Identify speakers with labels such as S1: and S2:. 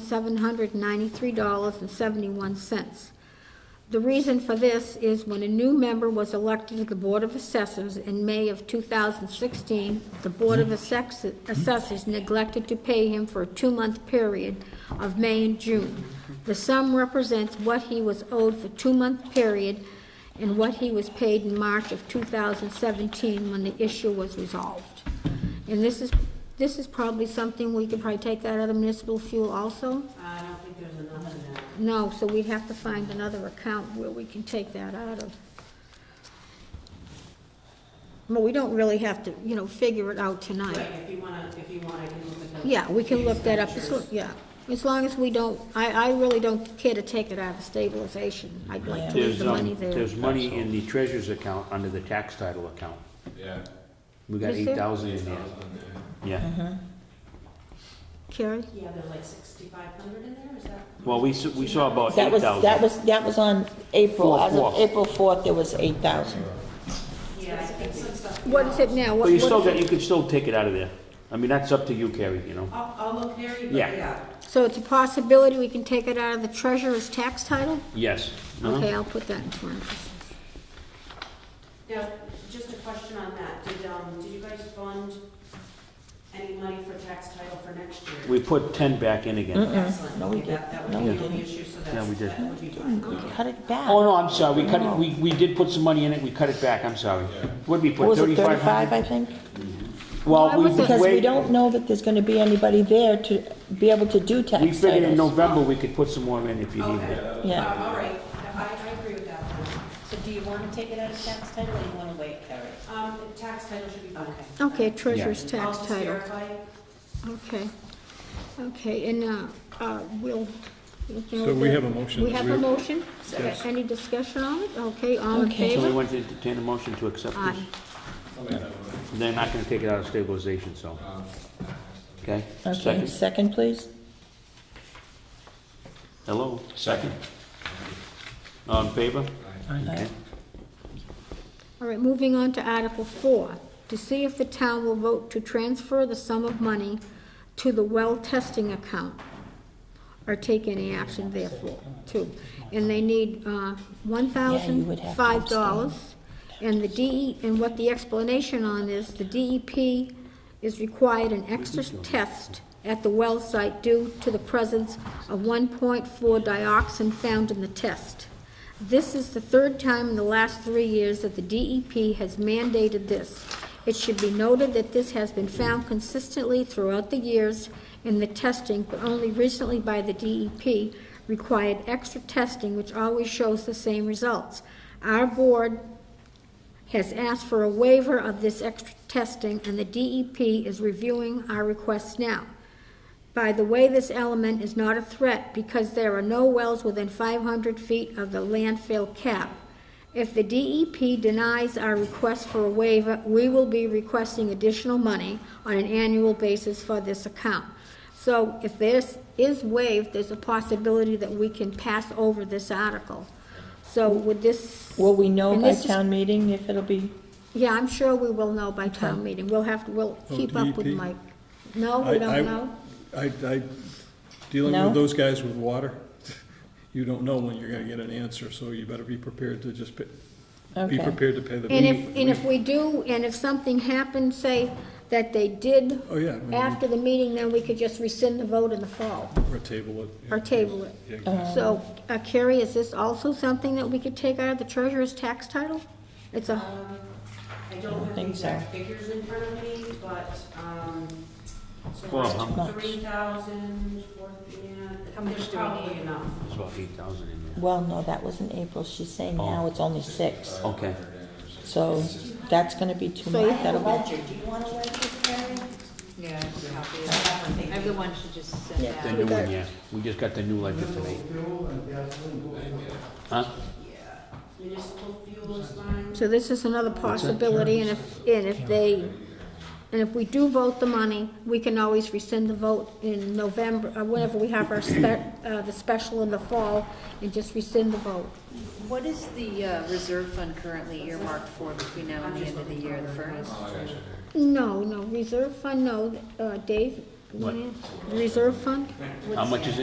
S1: seven hundred ninety-three dollars and seventy-one cents. The reason for this is when a new member was elected to the Board of Assessors in May of 2016, the Board of Assess- Assessors neglected to pay him for a two-month period of May and June. The sum represents what he was owed for two-month period and what he was paid in March of 2017 when the issue was resolved. And this is, this is probably something, we could probably take that out of municipal fuel also?
S2: I don't think there's enough in that.
S1: No, so we'd have to find another account where we can take that out of. Well, we don't really have to, you know, figure it out tonight.
S2: Right, if you wanna, if you wanna, you can look at the.
S1: Yeah, we can look that up, As lo-
S2: expenditures.
S1: yeah. As long as we don't, I, I really don't care to take it out of stabilization. I'd like to leave
S3: There's,
S1: the
S3: um,
S1: money there.
S3: there's money in the treasurer's account under the tax title account.
S4: Yeah.
S3: We got
S1: Is
S3: eight
S1: there?
S3: thousand in there. Yeah,
S1: Carrie?
S2: Yeah, there's like sixty-five hundred in there, is that?
S3: well, we, s- we saw about
S5: That
S3: eight
S5: was, that
S3: thousand.
S5: was, that was on April,
S3: Four,
S5: as of
S3: four.
S5: April 4th, there was 8,000.
S2: Yeah, I think some stuff.
S1: What is it now? What-
S3: But you
S1: what
S3: still
S1: is
S3: got,
S1: it?
S3: you can still take it out of there. I mean, that's up to you, Carrie, you know?
S2: I'll, I'll look there, but
S3: Yeah.
S2: yeah,
S1: So it's a possibility we can take it out of the treasurer's tax title?
S3: Yes. Uh-huh.
S1: Okay, I'll put that in parentheses.
S2: now, just a question on that, did, um, did you guys fund any money for tax title for next year?
S3: We put ten back in again.
S2: Excellent,
S5: No, we
S2: okay, that, that
S5: didn't.
S2: would
S5: No,
S2: be
S3: we
S2: the only issue, so
S3: Yeah,
S2: that's,
S3: we did.
S2: that would be fine.
S5: Cut it back.
S3: Oh, no, I'm sorry, we cut, it- we, we did put some money in it, we cut it back, I'm sorry. What'd we
S5: What
S3: put,
S5: was it,
S3: thirty-five
S5: 35,
S3: hundred?
S5: I think?
S1: Why
S3: Well, we,
S1: was it-
S5: Because we
S3: wait,
S5: don't know that there's gonna be anybody there to be able to do
S3: we
S5: tax
S3: figured in
S5: titles.
S3: November we could put some more in if you needed it.
S2: Okay.
S5: Yeah.
S2: Uh, All right, I, I agree with that one.
S6: So do you want to take it out of tax title or you want to wait, Carrie?
S2: Um, tax title should be fine.
S1: Okay, treasurer's tax
S2: I'll just
S1: title.
S2: verify it.
S1: Okay, okay, and, uh, uh, we'll. we'll know
S7: So we
S1: that-
S7: have a motion
S1: We
S7: that
S1: have
S7: we-
S1: a motion?
S7: Yes.
S1: Any discussion on it? Okay, all in
S5: Okay.
S3: So we
S1: favor?
S3: want to entertain a motion to accept
S1: Aye.
S3: this? They're not gonna take it out of stabilization, so. Okay,
S5: Okay,
S3: second,
S5: second, please?
S3: hello, second. All in favor? Okay.
S1: All right, moving on to Article Four, to see if the town will vote to transfer the sum of money to the well testing account, or take any action therefore, too. And they need, uh, one thousand
S5: would have to
S1: five
S5: abstain.
S1: dollars. And the DE, and what the explanation on is, the DEP is required an extra test at the well site due to the presence of 1.4 dioxin found in the test. This is the third time in the last three years that the DEP has mandated this. It should be noted that this has been found consistently throughout the years in the testing, but only recently by the DEP, required extra testing which always shows the same results. Our board has asked for a waiver of this extra testing, and the DEP is reviewing our requests now. By the way, this element is not a threat because there are no wells within 500 feet of the landfill cap. If the DEP denies our request for a waiver, we will be requesting additional money on an annual basis for this account. So if this is waived, there's a possibility that we can pass over this article. So would this...
S5: Will we know
S1: and
S5: by
S1: this is-
S5: town meeting if it'll be,
S1: yeah, I'm sure we will know by town meeting. We'll have, to. we'll
S7: Oh,
S1: keep up with
S7: DEP?
S1: Mike. No,
S7: I-
S1: we
S7: I-
S1: don't know?
S7: I, I, dealing
S5: No?
S7: with those guys with water, you don't know when you're gonna get an answer, so you better be prepared to just, pa- be
S5: Okay.
S7: prepared to pay the.
S1: And if, and if we do, and if something happened, say, that they did
S7: Oh, yeah, I mean,
S1: after the meeting, then we could just rescind the vote in the fall,
S7: Or table it. yeah.
S1: or table it.
S7: Yeah,
S1: So, uh, Carrie, is this also something that we could take out of the treasurer's tax title? It's a,
S2: Um, I don't have the
S5: think so.
S2: exact figures in front of me, but, um, so
S3: Well, how
S5: much?
S2: like three thousand, four, yeah, there's probably enough.
S3: There's about eight thousand in there.
S5: well, no, that was in April, she's saying now it's only six.
S3: Okay,
S5: So that's gonna be too
S1: So you
S5: much,
S6: The
S5: that'll be,
S6: ledger, do you want to wait this, Carrie?
S2: Yeah,
S6: Everyone should just send
S5: Yeah.
S3: the new one, yeah, we just got the new ledger today. Huh?
S2: Municipal fuel is fine.
S1: so this is another possibility, and if, and if they, and if we do vote the money, we can always rescind the vote in November, uh, whenever we have our spe, uh, the special in the fall, and just rescind the vote.
S6: What is the uh, reserve fund currently earmarked for between now and the end of the year, the first?
S1: No, no, reserve fund, no, uh, Dave? you wanna- Reserve fund?
S3: How much is it?